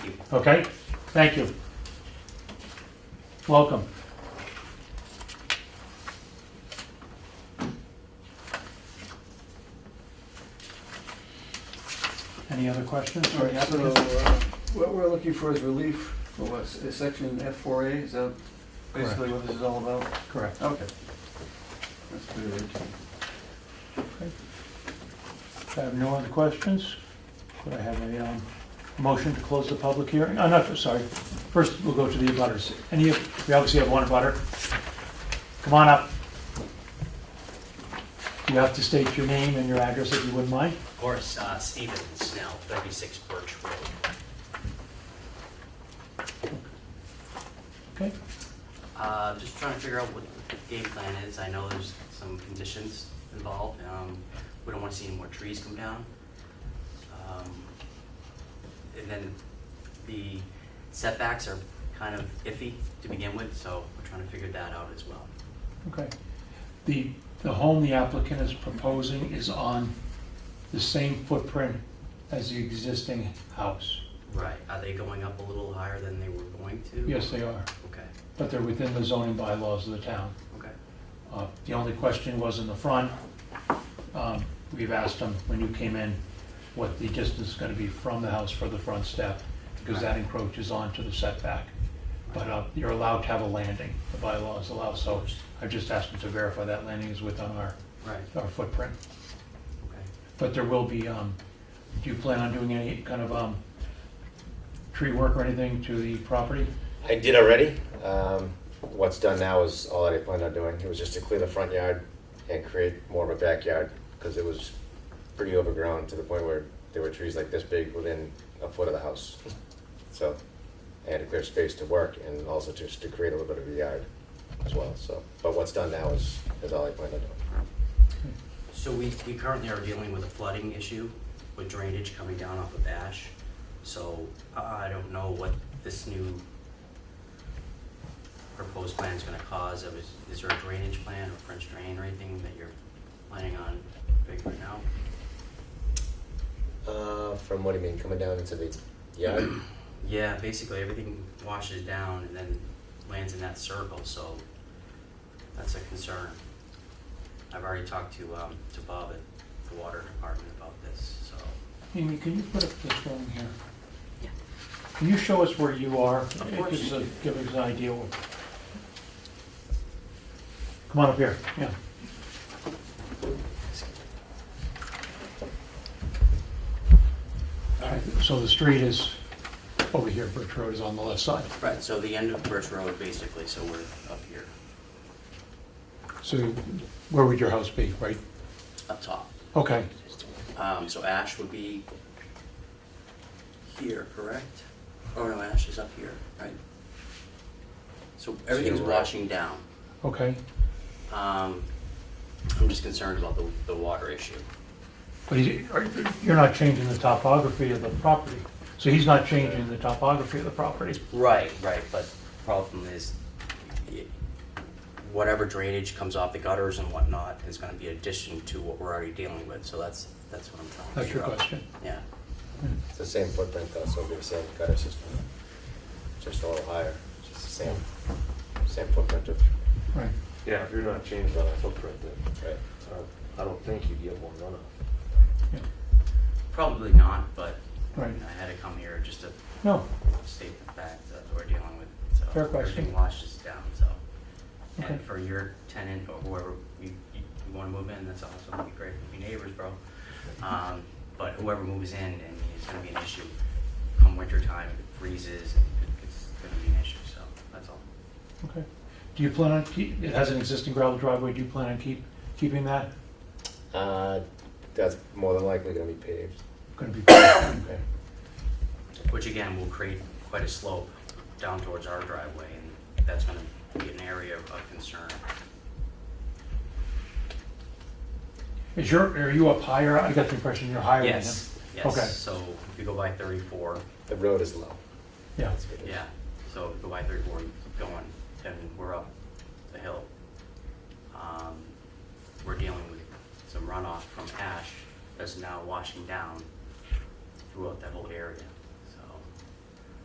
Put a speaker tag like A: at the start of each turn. A: Okay, thank you. Welcome. Any other questions?
B: All right, so uh, what we're looking for is relief for what, s- section F4A, is that basically what this is all about?
A: Correct.
B: Okay. That's pretty routine.
A: If I have no other questions, could I have a um, motion to close the public hearing? Oh, no, sorry. First, we'll go to the abutters. Any, of- we obviously have one abutter. Come on up. You have to state your name and your address if you wouldn't mind.
C: Of course, uh, Stephen Snell, 36 Birch Road.
A: Okay?
C: Uh, Just trying to figure out what the game plan is. I know there's some conditions involved. Um, We don't want to see any more trees come down. Um, And then the setbacks are kind of iffy to begin with, so we're trying to figure that out as well.
A: Okay. The, the home the applicant is proposing is on the same footprint as the existing house.
C: Right, are they going up a little higher than they were going to?
A: Yes, they are,
C: Okay,
A: but they're within the zoning bylaws of the town.
C: okay,
A: Uh, The only question was in the front. Um, We've asked them, when you came in, what the distance is going to be from the house for the front step, because that encroaches onto the setback. But uh, you're allowed to have a landing, the bylaws allow, so I've just asked them to verify that landing is within our,
C: right,
A: our footprint.
C: okay.
A: But there will be, um, do you plan on doing any kind of, um, tree work or anything to the property?
D: I did already. Um, what's done now is all that I planned on doing. It was just to clear the front yard and create more of a backyard because it was pretty overgrown to the point where there were trees like this big within a foot of the house. So I had to clear space to work and also just to create a little bit of a yard as well. So, but what's done now is, is all I planned on doing.
C: So we, we currently are dealing with a flooding issue with drainage coming down off of Ash. So I I don't know what this new proposed plan is gonna cause. I was- Is there a drainage plan or French drain or anything that you're planning on figuring out?
D: Uh, from what do you mean, coming down into the yard?
C: Yeah, basically everything washes down and then lands in that circle, so that's a concern. I've already talked to, um, to Bob at the water department about this, so.
A: Amy, can you put up this one here?
C: Yeah.
A: Can you show us where you are? It
C: course.
A: gives a- Give us an idea. what- Come on up here, yeah. All right, so the street is over here, Birch Road is on the left side.
C: Right, so the end of Birch Road, basically, so we're up here,
A: So where would your house be, right?
C: up top.
A: Okay,
C: Um, so Ash would be here, correct? Oh, no, Ash is up here, right? So everything's
D: you're right.
C: washing down.
A: okay.
C: Um, I'm just concerned about the, the water issue.
A: But he- are- you're not changing the topography of the property. So he's not changing the topography of the property.
C: Right, right, but problem is, y- whatever drainage comes off the gutters and whatnot is gonna be addition to what we're already dealing with, so that's, that's what I'm trying to
A: That's your
C: figure out.
A: question.
C: Yeah,
A: Hmm.
D: It's the same footprint though, so it'll be the same gutter system, just a little higher, just the same, same footprint of,
A: Right.
E: Yeah, if you're not changing that footprint, then
D: right?
E: uh, I don't think you get more runoff.
A: yeah,
C: probably not, but
A: Right.
C: I had to come here just to
A: No,
C: state the fact that we're dealing with. so
A: Fair question.
C: Everything washes down, so. And
A: Okay.
C: for your tenant or whoever you, you want to move in, that's awesome, it'd be great, to be neighbors, bro. Um, But whoever moves in, and it's gonna be an issue come winter time, if it freezes, it- it's gonna be an issue, so that's all.
A: okay. Do you plan on keep, it has an existing gravel driveway, do you plan on keep, keeping that?
D: Uh, that's more than likely gonna be paved.
A: Gonna be, okay,
C: Which again, will create quite a slope down towards our driveway, and that's gonna be an area of concern.
A: Is your, are you up higher? I got the impression you're higher than him.
C: Yes,
A: Okay.
C: yes, so if you go by thirty-four,
D: The road is low.
A: Yeah,
D: That's what it is.
C: Yeah, so the Y thirty-four keep going, then we're up the hill. Um, We're dealing with some runoff from ash that's now washing down throughout that whole area.